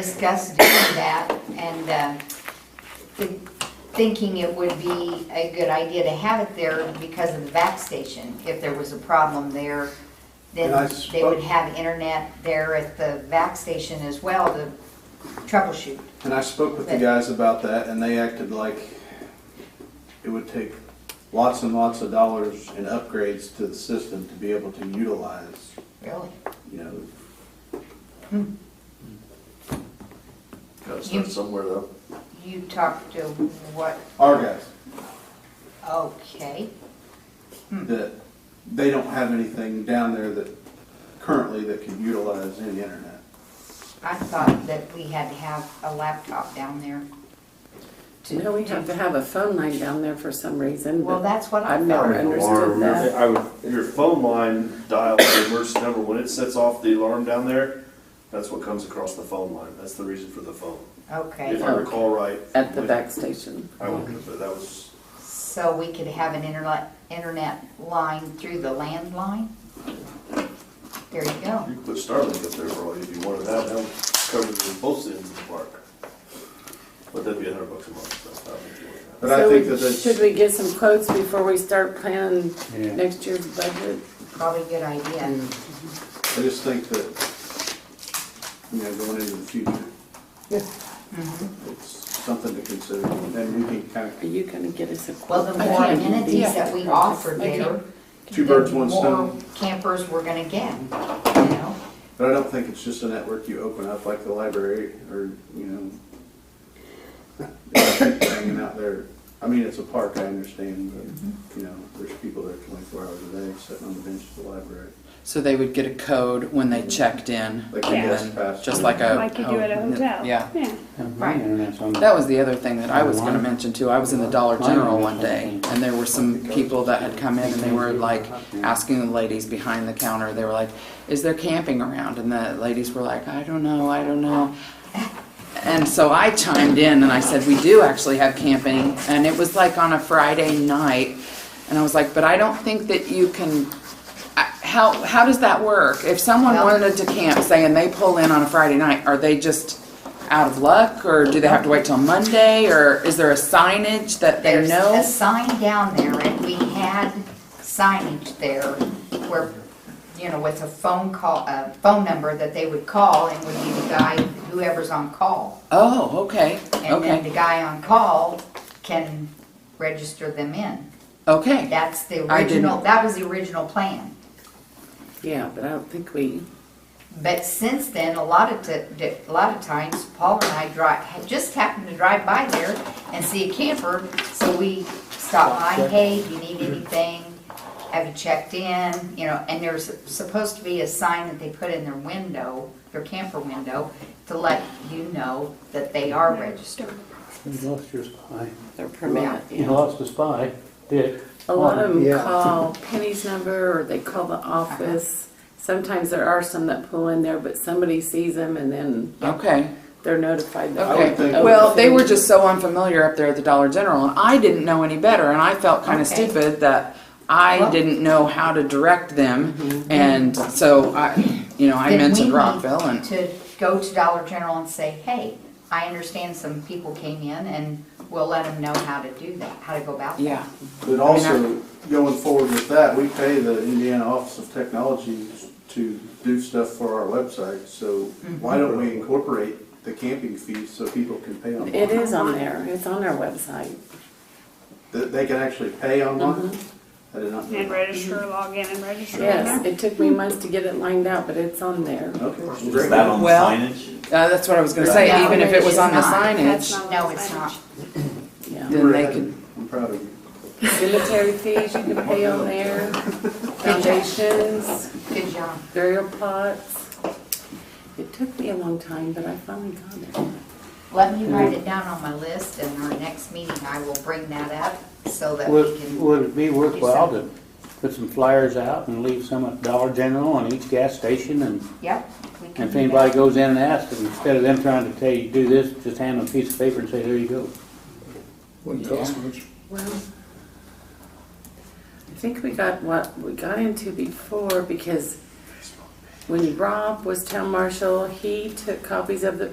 discussed doing that and uh, thi- thinking it would be a good idea to have it there because of the back station. If there was a problem there, then And I they would spoke- have internet there at the back station as well to troubleshoot. And I spoke with the Okay. guys about that, and they acted like it would take lots and lots of dollars in upgrades to the system to be able to utilize, Really? you know. Gotta start somewhere though. You talked to what, Our guys, okay, that they don't have anything down there that currently that can utilize any internet. I thought that we had to have a laptop down there. to- No, we have to have a phone line down there for some reason. Well, but that's what I I've never thought. understood that. I would, your phone line dial the emergency number, when it sets off the alarm down there, that's what comes across the phone line, that's the reason for the phone. If Okay, I recall right. At the back station. I would, but that was, so we could have an internet, internet line through the landline? There you you go. could put Starlink up there for all, if you wanted that, that would cover the- both ends of the park. But that'd be a hundred bucks a month, so I don't think you want that. But I So think we- that that's. Should we get some quotes before we start planning Yeah. next year's budget? Probably a good idea. I just think that, you know, going into the future, it's something to consider, and we can kind Are you gonna get us a quote? Well, the I more can't- amenities that we offer I there, can't- of, two birds, the one more stone. campers we're gonna get, you know? But I don't think it's just a network you open up like the library, or, you know, there's people hanging out there. I mean, it's a park, I understand, Mm-hmm. but, you know, there's people there twenty-four hours a day, sitting on the bench at the library. So they would get a code when they checked in, Like a and guest then- pass. just like a Like you do at a hotel. Yeah, Mm-hmm. Right. that was the other thing that I was going to Online. mention too. I was in the Dollar Online. General one day, and there were some people that had come in and they were like asking the ladies behind the counter. They were like, "Is there camping around?" And the ladies were like, "I don't know, I don't know." And so I chimed in and I said, "We do actually have camping," and it was like on a Friday night, and I was like, "But I don't think that you can." I- How how does that work? If someone Well- wanted to camp, saying they pull in on a Friday night, are they just out of luck, or do they have to wait till Monday, or is there a signage that they There's know? a sign down there, and we had signage there where, you know, with a phone call, a phone number that they would call and would be the guy, whoever's on call. Oh, okay, And then the okay, guy on call can register them in. okay. That's the I didn't- original, that was the original plan. Yeah, but I don't think we, But since then, a lot of, ti- di- a lot of times, Paul and I drive, had just happened to drive by there and see a camper, so we stopped by, hey, do you need anything? Have you checked in? You know, and there's supposed to be a sign that they put in their window, their camper window, to let you know that they are registered. You lost your spy. their permit, You yeah. lost a spy, Dick. A lot of them Yeah. call Penny's number or they call the office. Sometimes there are some that pull in there, but somebody sees them and then Okay, they're notified. that- I would okay. think- Well, they were just so unfamiliar up there at the Dollar General, and I didn't know any better, and I felt kind of Okay. stupid that I Well- didn't know how to direct them, and so I, you know, I Then we mentioned need Rockville, and, To go to Dollar General and say, hey, I understand some people came in and we'll let them know how to do that, how to go about that. yeah. But also, going forward with that, we pay the Indiana Office of Technology to do stuff for our website, so Mm-hmm. why don't we incorporate the camping fees so people can pay online? It is on there. It's on our website. That they can actually pay online? Mm-hmm. I did not know And that. register, log in and register. Yes, it took me months to get it lined out, but it's on there. Okay, well, Is great. that on the Well- signage? Uh, that's what I was gonna say, No, even if it was on the it's not. That's signage, not No, on it's signage. not. Yeah. then they could, I'm proud of you. Cemetery fees you can pay on there, foundations, Good job. burial plots. It took me a long time, but I finally got it. Let me write it down on my list, and our next meeting, I will bring that up so that we Would, can, would it be worthwhile to put some flyers out and leave some at Dollar General and each gas station and, yep. we can and if do anybody that. goes in and asks, instead of them trying to tell you, do this, just hand them a piece of paper and say, there you go. Wouldn't cost much. Well, I think we got what we got into before because when Rob was town marshal, he took copies of the